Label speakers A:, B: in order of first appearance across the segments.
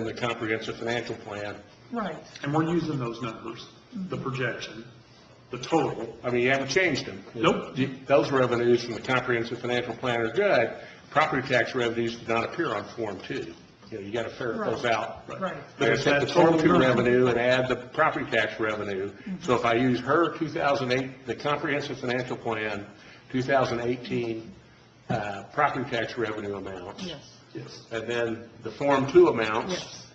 A: in the comprehensive financial plan.
B: Right,
C: And we're using those numbers, the projection, the total.
A: I mean, you haven't changed them.
C: Nope.
A: You- Those revenues from the comprehensive financial plan are good. Property tax revenues do not appear on Form 2. You know, you got to ferret those
B: Right.
A: out.
B: right.
A: They're gonna take the Form 2 revenue and add the property tax revenue.
B: Mm-hmm.
A: So if I use her 2008, the comprehensive financial plan, 2018 uh, property tax revenue amounts,
B: Yes,
C: Yes.
A: and then the Form 2 amounts,
B: yes,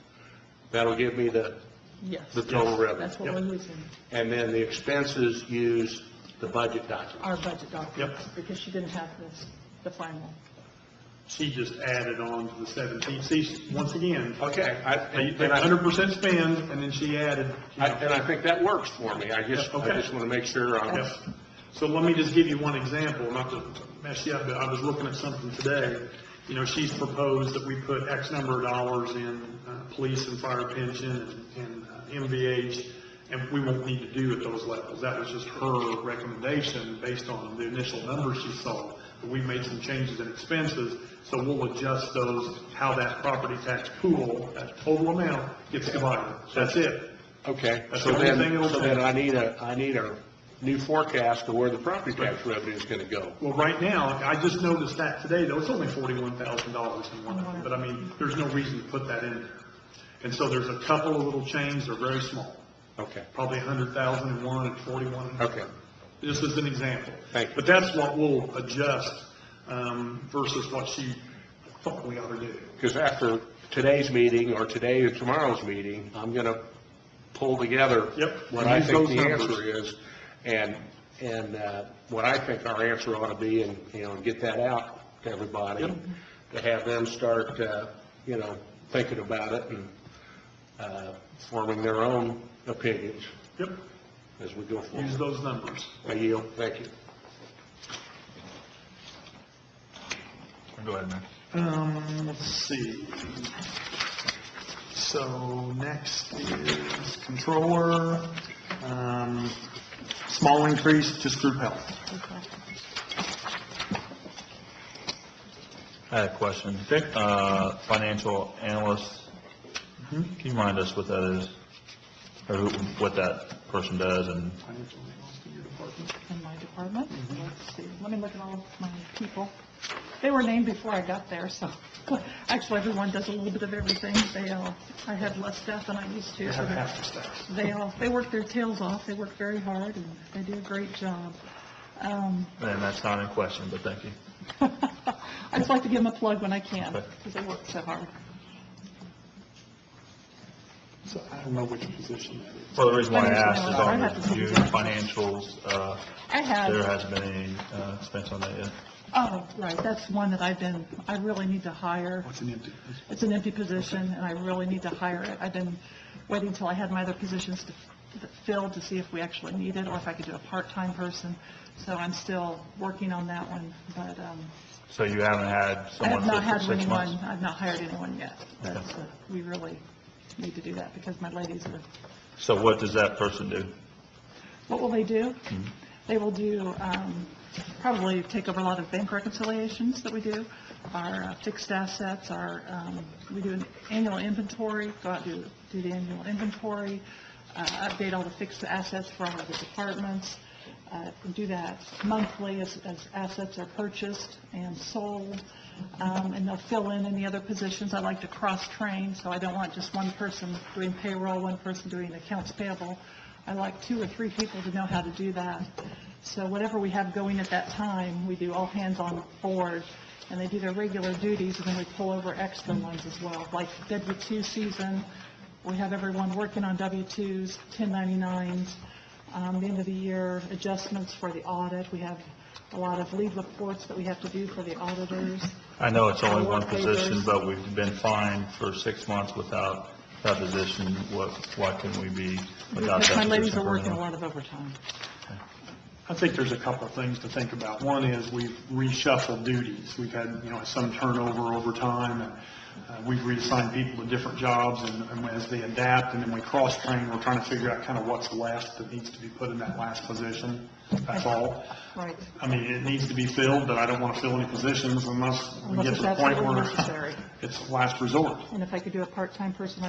A: that'll give me the
B: yes.
A: the total revenue.
B: That's what we're using,
A: And then the expenses use the budget document.
B: our budget documents, because she didn't have this, the final.
C: She just added on to the 17, see, once again,
A: Okay, I,
C: they
A: and
C: they
A: I,
C: 100% spend, and then she added, you know,
A: I- and I think that works for me. I just,
C: Yeah,
A: I
C: okay.
A: just want to make sure I'm,
C: Yes. So let me just give you one example, not to mess you up, but I was looking at something today. You know, she's proposed that we put X number of dollars in uh, police and fire pension and uh, MVH, and we won't need to do at those levels. That was just her recommendation based on the initial numbers she saw. But We've made some changes in expenses, so we'll adjust those, how that property tax pool, that total amount gets divided. That's it.
A: okay.
C: That's
A: So
C: the only thing
A: then,
C: it'll
A: so
C: take.
A: then I need a, I need a new forecast of where the property tax revenue is going to go.
C: Well, right now, I just noticed that today, though, it's only forty-one thousand dollars in one of them, but I mean, there's no reason to put that in there. And so there's a couple of little changes, they're very small,
A: Okay,
C: probably a hundred thousand in one and forty-one.
A: okay.
C: Just as an example.
A: Thank you.
C: But that's what we'll adjust, um, versus what she thought we ought to do.
A: Because after today's meeting, or today or tomorrow's meeting, I'm going to pull together
C: Yep.
A: what I
C: Use
A: think
C: those
A: the
C: numbers.
A: answer is, and, and uh, what I think our answer ought to be, and, you know, get that out to everybody,
C: Yep.
A: to have them start, uh, you know, thinking about it and uh, forming their own opinions
C: Yep,
A: as we go
C: use
A: forward.
C: those numbers.
A: I yield, thank you.
D: Go ahead, man.
C: Um, let's see. So next is controller, um, small increase, just group health.
D: I had a question. Uh, financial analyst,
C: Mhm.
D: can you remind us what that is? Or who, what that person does and,
C: Financial analyst in your department.
B: in my department. Let's see, let me look at all of my people. They were named before I got there, so, actually, everyone does a little bit of everything. They all, I have less staff than I used to, so
C: Have
B: they-
C: half the staff.
B: they all, they work their tails off, they work very hard, and they do a great job. Um,
D: and that's not in question, but thank you.
B: I just like to give them a plug when I can,
D: Okay.
B: because they work so hard.
C: So I don't know which position that is.
D: Well, the reason why I
B: Financial
D: asked is
B: analyst.
D: on
B: I have to
D: the
B: look
D: June
B: at that.
D: financials, uh,
B: I have.
D: there hasn't been any, uh, expense on that yet.
B: Oh, right, that's one that I've been, I really need to hire.
C: What's an empty?
B: It's an empty position, and I really need to hire it. I've been waiting till I had my other positions to f- filled to see if we actually need it, or if I could do a part-time person. So I'm still working on that one, but um,
D: So you haven't had
B: I
D: someone
B: have not
D: for
B: had
D: six
B: anyone,
D: months?
B: I've not hired anyone yet.
D: Okay.
B: That's, uh, we really need to do that, because my ladies are,
D: So what does that person do?
B: what will they do? They will do, um, probably take over a lot of bank reconciliations that we do, our uh, fixed assets, our, um, we do an annual inventory, go out and do, do the annual inventory, uh, update all the fixed assets for all of the departments, uh, and do that monthly as, as assets are purchased and sold, um, and they'll fill in any other positions. I like to cross-train, so I don't want just one person doing payroll, one person doing accounts payable. I like two or three people to know how to do that. So whatever we have going at that time, we do all hands on board, and they do their regular duties, and then we pull over extra ones as well. Like W-2 season, we have everyone working on W-2s, 1099s, um, the end of the year adjustments for the audit. We have a lot of lead reports that we have to do for the auditors.
D: I know it's only
B: Or
D: one
B: what
D: position,
B: papers.
D: but we've been fined for six months without that position. What, why can we be without that
B: Because
D: position?
B: my ladies are
D: for
B: working a
D: anyone?
B: lot of overtime.
C: I think there's a couple of things to think about. One is we've reshuffled duties. We've had, you know, some turnover over time, and uh, we've reassigned people to different jobs, and and as they adapt, and then we cross-train, we're trying to figure out kind of what's left that needs to be put in that last position. That's all.
B: Right.
C: I mean, it needs to be filled, but I don't want to fill any positions unless we
B: Unless
C: get to
B: it's
C: the point
B: absolutely
C: where
B: necessary.
C: it's last resort.
B: And if I could do a part-time person,